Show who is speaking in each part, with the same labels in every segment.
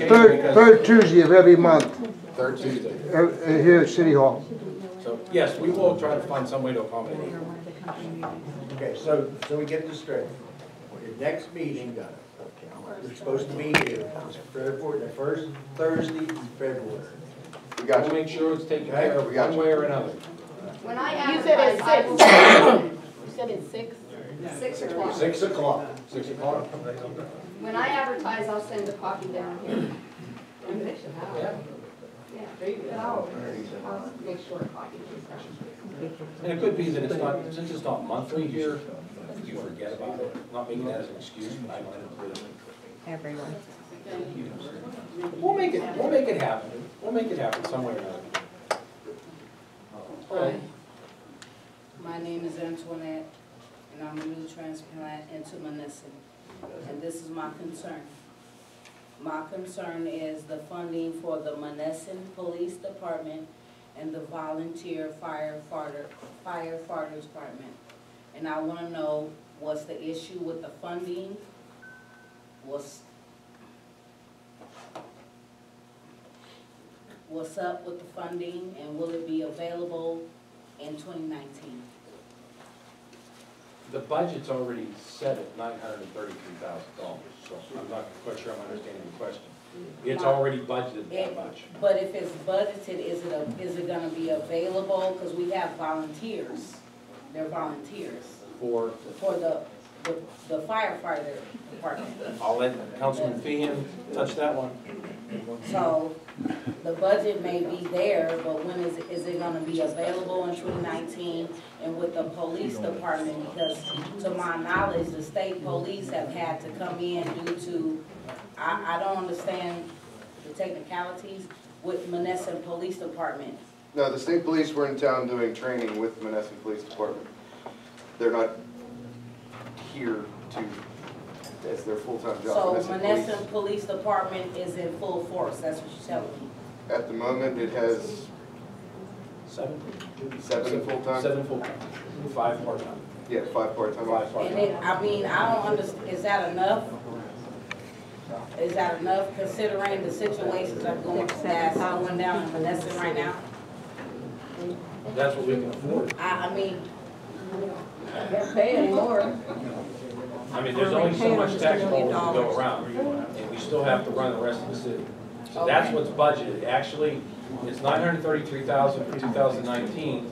Speaker 1: The Third, third Tuesday of every month,
Speaker 2: Third Tuesday.
Speaker 1: uh, uh, here at City Hall.
Speaker 2: So, yes, we will try to find some way to accommodate.
Speaker 3: Okay, so, so we get this straight. Your next meeting, you're supposed to be here, it's February, the first Thursday in February.
Speaker 4: We got
Speaker 2: We'll
Speaker 4: you.
Speaker 2: make sure it's taken care of
Speaker 4: We got
Speaker 2: one
Speaker 4: you.
Speaker 2: way or another.
Speaker 5: When I
Speaker 6: You said it's
Speaker 5: advertise, I will.
Speaker 6: six. You said it's six?
Speaker 5: Six o'clock.
Speaker 2: Six o'clock. Six o'clock.
Speaker 5: When I advertise, I'll send a copy down here.
Speaker 2: Yeah.
Speaker 5: Yeah, but I'll, I'll make sure a copy is down.
Speaker 2: And it could be that it's not, since it's not monthly here, you forget about it. I'm Not making that as an excuse, but I might have really.
Speaker 7: everyone.
Speaker 2: We'll make it, we'll make it happen. We'll make it happen some way or another. Um,
Speaker 8: Hi, my name is Antoinette, and I'm a new transplant into Menneson, and this is my concern. My concern is the funding for the Menneson Police Department and the volunteer firefighter, firefighter department. And I wanna know, what's the issue with the funding? What's, what's up with the funding and will it be available in twenty nineteen?
Speaker 2: The budget's already set at nine hundred and thirty-three thousand dollars, so I'm not quite sure I'm understanding the question. It's already budgeted that much.
Speaker 8: But if it's budgeted, is it, a- is it gonna be available? Cause we have volunteers, they're volunteers
Speaker 2: For,
Speaker 8: for the, the- the firefighter department.
Speaker 2: I'll let Councilman Feehan touch that one.
Speaker 8: So the budget may be there, but when is, it- is it gonna be available in twenty nineteen? And with the police department, because to my knowledge, the state police have had to come in due to, I, I don't understand the technicalities with Menneson Police Department.
Speaker 4: No, the state police were in town doing training with Menneson Police Department. They're not here to, as their full-time job.
Speaker 8: So
Speaker 4: Menneson Police-
Speaker 8: Menneson Police Department is in full force, that's what you're telling me.
Speaker 4: At the moment, it has
Speaker 2: Seven?
Speaker 4: seven full-time,
Speaker 2: Seven full-time, five part-time.
Speaker 4: yeah, five part-time
Speaker 2: Five
Speaker 4: officers.
Speaker 8: And it, I mean, I don't understand. is that enough? Is that enough considering the situations that are going, that's going down in Menneson right now?
Speaker 2: That's what we can afford.
Speaker 8: I, I mean,
Speaker 6: They're paying more.
Speaker 2: I mean, there's only so much tax dollars to go around, and we still have to run the rest of the city. So that's what's budgeted. Actually, it's nine hundred thirty-three thousand for two thousand nineteen.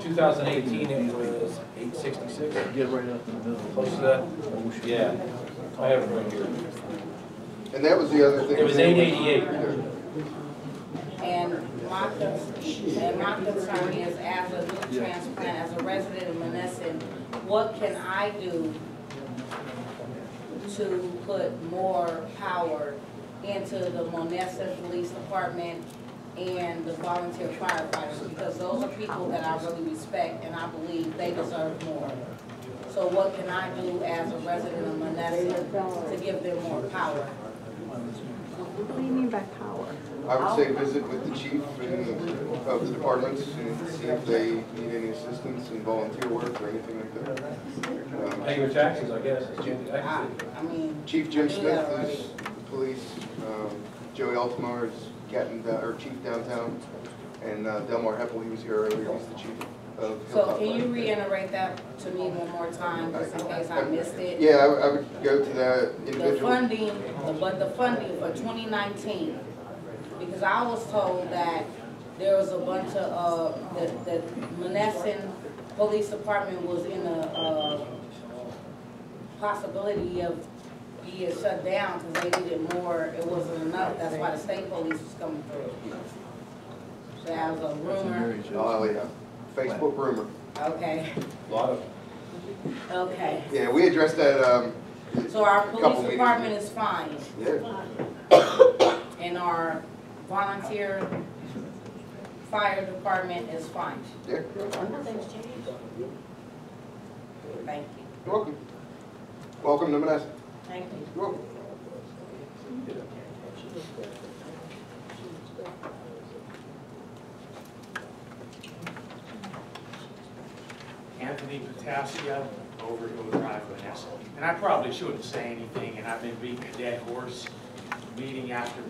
Speaker 2: Two thousand eighteen, it was eight sixty-six. Get right up in the middle. Close to that? Yeah. I have it right here.
Speaker 4: And that was the other thing.
Speaker 2: It was
Speaker 4: too,
Speaker 2: eight eighty-eight.
Speaker 8: and my, con- and my concern is as a new transplant, as a resident of Menneson, what can I do to put more power into the Monessen Police Department and the volunteer firefighters? Because those are people that I really respect and I believe they deserve more. So what can I do as a resident of Monessen to give them more power?
Speaker 7: What do you mean by power?
Speaker 4: I would say visit with the chief and of the departments and see if they need any assistance in volunteer work or anything like that. Um,
Speaker 2: Pay your taxes, I guess.
Speaker 8: I, I mean.
Speaker 4: Chief Jim Smith is the police, um, Joey Altamar is captain, da- or chief downtown, and uh, Delmar Heppel, he was here earlier, he's the chief of
Speaker 8: So
Speaker 4: Hilltop.
Speaker 8: can you reiterate that to me one more time, just in case I missed it?
Speaker 4: Yeah, I would- I would go to that
Speaker 8: The
Speaker 4: individual.
Speaker 8: funding, but the funding for twenty nineteen, because I was told that there was a bunch of, uh, that, that Menneson Police Department was in a, uh, possibility of being shut down because they needed more, it wasn't enough, that's why the state police was coming through. So that was a rumor,
Speaker 4: Oh, yeah, Facebook rumor.
Speaker 8: okay,
Speaker 2: Lot of,
Speaker 8: okay.
Speaker 4: Yeah, we addressed that, um,
Speaker 8: So our
Speaker 4: Couple
Speaker 8: police
Speaker 4: meetings.
Speaker 8: department is fine,
Speaker 4: yeah,
Speaker 8: and our volunteer fire department is fine.
Speaker 4: yeah,
Speaker 8: Thank you.
Speaker 4: you're welcome. Welcome to Manassas.
Speaker 8: Thank you.
Speaker 4: You're welcome.
Speaker 9: Anthony Potasio over Hill Drive, Menneson. And I probably shouldn't say anything, and I've been beating a dead horse, meeting after